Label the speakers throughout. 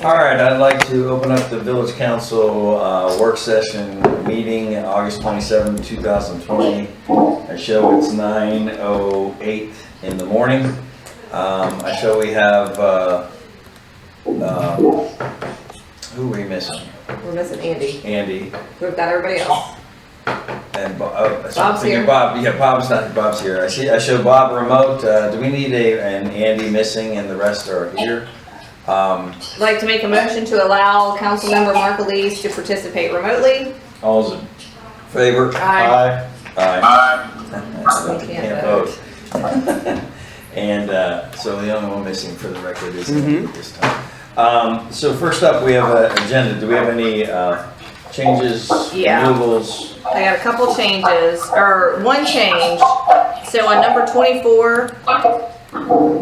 Speaker 1: All right, I'd like to open up the village council uh, work session meeting, August 27, 2020. I show it's 9:08 in the morning. Um, I show we have, uh, uh, who are we missing?
Speaker 2: We're missing Andy.
Speaker 1: Andy
Speaker 2: We've got everybody else.
Speaker 1: and Bob. oh, so I'm
Speaker 2: Bob's
Speaker 1: thinking
Speaker 2: here.
Speaker 1: Bob, yeah, Bob's not, Bob's here. I see, I show Bob remote. Uh, Do we need a, an Andy missing and the rest are here? Um,
Speaker 2: I'd Like to make a motion to allow Councilmember Mark Elise to participate remotely.
Speaker 1: All's in favor?
Speaker 2: Aye.
Speaker 1: Aye. Aye.
Speaker 2: We
Speaker 1: Can't
Speaker 2: can't
Speaker 1: vote. And uh, so the only one missing for the record is Andy at this time. Um, So first up, we have an agenda. Do we have any uh, changes,
Speaker 2: Yeah.
Speaker 1: removals?
Speaker 2: I got a couple changes, or one change. So on number twenty-four,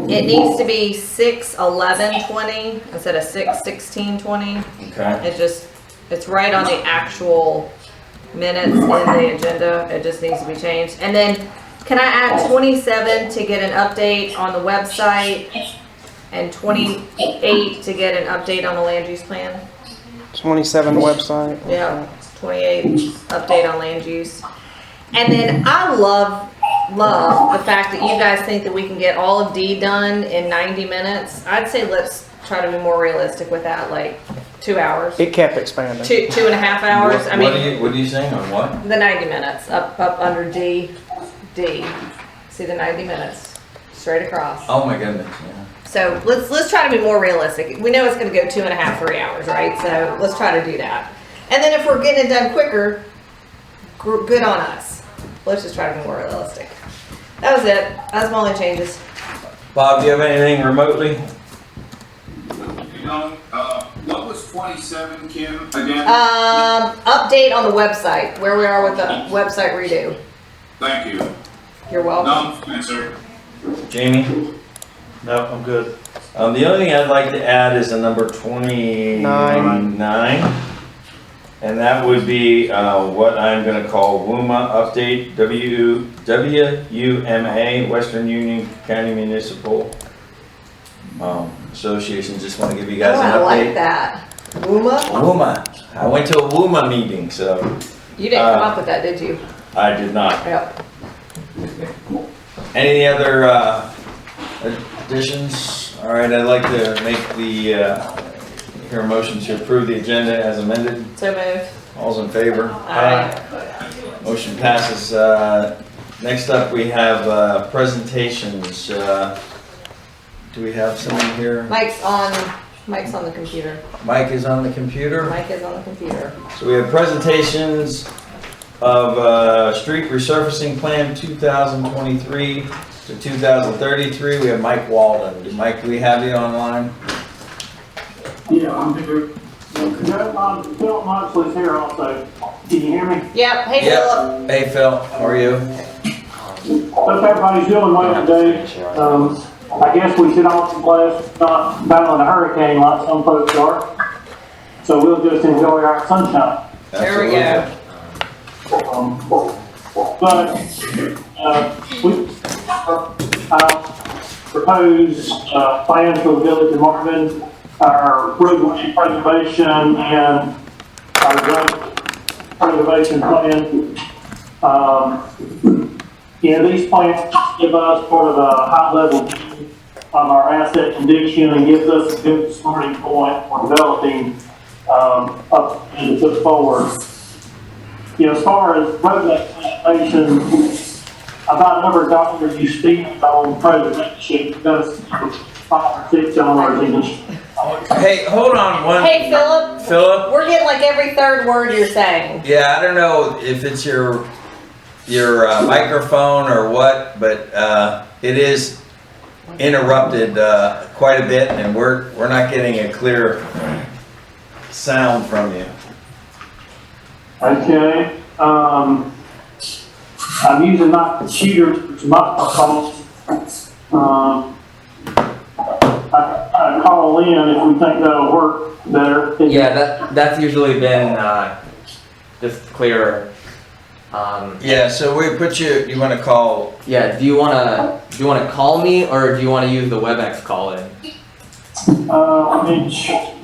Speaker 2: it needs to be six eleven twenty instead of six sixteen twenty.
Speaker 1: Okay,
Speaker 2: It just, it's right on the actual minutes in the agenda, it just needs to be changed. And then, can I add twenty-seven to get an update on the website? And twenty-eight to get an update on the land use plan?
Speaker 3: 27 website.
Speaker 2: Yeah, twenty-eight, update on land use. And then I love, love the fact that you guys think that we can get all of D done in ninety minutes. I'd say let's try to be more realistic with that, like, two hours
Speaker 3: It kept expanding.
Speaker 2: two two and a half hours. I
Speaker 1: What- What are
Speaker 2: mean,
Speaker 1: you, what are you saying on what?
Speaker 2: the ninety minutes up up under D D. See the ninety minutes straight across.
Speaker 1: Oh my goodness, yeah.
Speaker 2: So let's let's try to be more realistic. We know it's going to go two and a half three hours, right? So let's try to do that. And then if we're getting it done quicker, gr- good on us. Let's just try to be more realistic. That was it. That's my only changes.
Speaker 1: Bob, do you have anything remotely?
Speaker 4: You know, uh, what was twenty-seven, Kim, again?
Speaker 2: Um, update on the website where we are with the website redo.
Speaker 4: Thank you.
Speaker 2: You're welcome.
Speaker 4: No, Spencer.
Speaker 1: Jamie?
Speaker 5: No, I'm good.
Speaker 1: Um, the only thing I'd like to add is a number twenty-nine. And that would be, uh, what I'm gonna call WUMA update, W, W U M A, Western Union County Municipal um, Association, just wanna give you
Speaker 2: Oh,
Speaker 1: guys an
Speaker 2: I like
Speaker 1: update.
Speaker 2: that. Uma,
Speaker 1: WUMA, I went to a WUMA meeting, so
Speaker 2: you didn't come
Speaker 1: Uh,
Speaker 2: up with that, did you?
Speaker 1: I did not.
Speaker 2: Yep.
Speaker 1: Any other, uh, additions? All right, I'd like to make the, uh, hear a motion to approve the agenda as amended.
Speaker 2: So move.
Speaker 1: All's in favor?
Speaker 2: Aye.
Speaker 1: Motion passes. Uh, Next up, we have uh, presentations. Uh, Do we have someone here?
Speaker 2: Mike's on, Mike's on the computer.
Speaker 1: Mike is on the computer.
Speaker 2: Mike is on the computer.
Speaker 1: So we have presentations of uh, Street Resurfacing Plan 2023 to 2033. We have Mike Walden. Do- Mike, do we have you online?
Speaker 6: Yeah, I'm here. No, um, Phil Moxley's here also. Can you hear me?
Speaker 2: Yep, hey Philip.
Speaker 1: Yep. Hey, Phil, how are you?
Speaker 6: Hope everybody's doing well today. Um, I guess we should all be blessed not battling a hurricane like some folks are. So we'll just enjoy our sunshine.
Speaker 2: There we go.
Speaker 6: Um, But, uh, we, I propose, uh, plans for the village of Marvin, our roadway uh, preservation and our road preservation plan. Um, you know, these plans give us sort of a high level view of our asset condition and gives us a good starting point for developing, um, up and to put forward. You know, as far as roadway preservation, about number of dollars you spend on preservation, that's five or six dollars each.
Speaker 1: Hey, hold on one.
Speaker 2: Hey Philip,
Speaker 1: Philip?
Speaker 2: we're getting like every third word you're saying.
Speaker 1: Yeah, I don't know if it's your your uh, microphone or what, but uh, it is interrupted uh, quite a bit, and we're we're not getting a clear sound from you.
Speaker 6: Okay, um, I'm using my computer, it's my phone. Um, I, I call in if we think that'll work better.
Speaker 7: Yeah, that that's usually been uh, just clearer. Um,
Speaker 1: Yeah, so we put you. You want to call?
Speaker 7: yeah, do you wanna do you wanna call me or do you wanna use the WebEx call in?
Speaker 6: Uh, I mean,